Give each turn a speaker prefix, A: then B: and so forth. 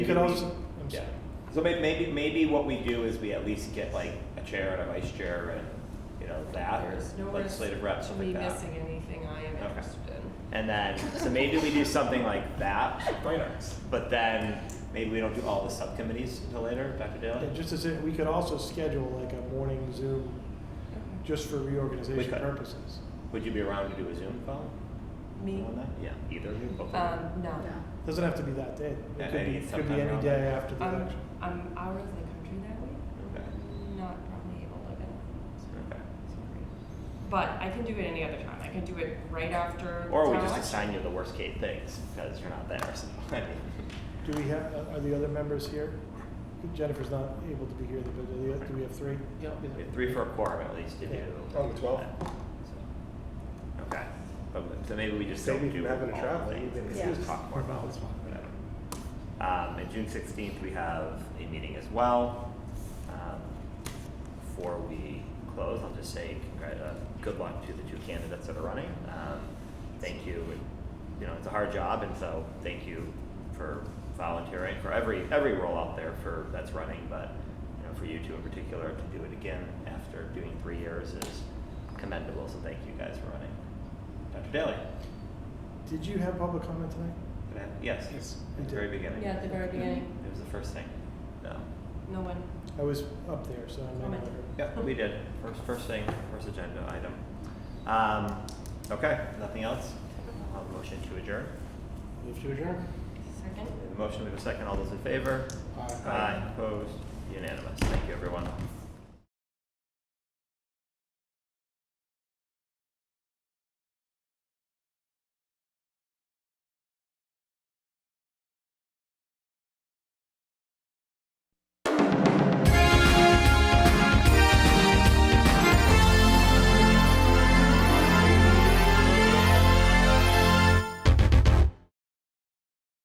A: You could also,
B: Yeah, so may- maybe, maybe what we do is we at least get like a chair and a vice chair and, you know, that
C: There's no
B: or
C: risk
B: legislative rep,
C: to
B: something
C: me
B: like that.
C: missing anything I am
B: Okay.
C: interested in.
B: And then, so maybe we do something like that, but then maybe we don't do all the subcommittees until later, Dr. Daly?
A: and just as it, we could also schedule like a morning Zoom just for
B: We
A: reorganization
B: could.
A: purposes.
B: Would you be around to do a Zoom call?
C: Me?
B: on that? Yeah, either of you, both of you.
C: Um, no.
A: Doesn't have to be that day.
B: Yeah,
A: It could
B: maybe
A: be,
B: it's
A: could be
B: sometime
A: any
B: around
A: day
B: that.
A: after the
C: I'm,
A: election.
C: I'm out of the country that week.
B: Okay,
C: Not probably able to.
B: okay.
C: But I can do it any other time. I can do it right after.
B: Or we
C: town
B: just
C: election.
B: assign you the worst case things, because you're not there, so, I mean,
A: Do we have, uh, are the other members here? Jennifer's not able to be here, but do we have- do we have three?
B: we have three for a quorum at least to do.
A: Yeah.
D: On the 12th.
B: So, Okay, But- so maybe we just
D: Maybe
B: don't
D: if
B: do
D: you're having to
B: all
D: travel,
B: the things.
D: you can-
B: Let's just talk more about this one, whatever. Um, and June sixteenth, we have a meeting as well. Um, Before we close, I'll just say congrat, uh, good luck to the two candidates that are running. Um, thank you, and, you know, it's a hard job, and so thank you for volunteering, for every, every role out there for, that's running, but, you know, for you two in particular, to do it again after doing three years is commendable, so thank you guys for running. Dr. Daly?
A: Did you have public comment tonight?
B: did I- Yes,
A: We
B: at the very
A: did.
B: beginning.
C: Yeah, at the very beginning.
B: It was the first thing. No.
C: No one.
A: I was up there, so I might not
C: Comment.
A: have-
B: Yep, we did. First, first thing, first agenda item. Um, okay, nothing else? I'll have a motion to adjourn.
D: Move to adjourn.
C: Second.
B: We have a motion, we have a second. All those in favor?
D: Aye.
B: Opposed? Unanimous. Thank you, everyone.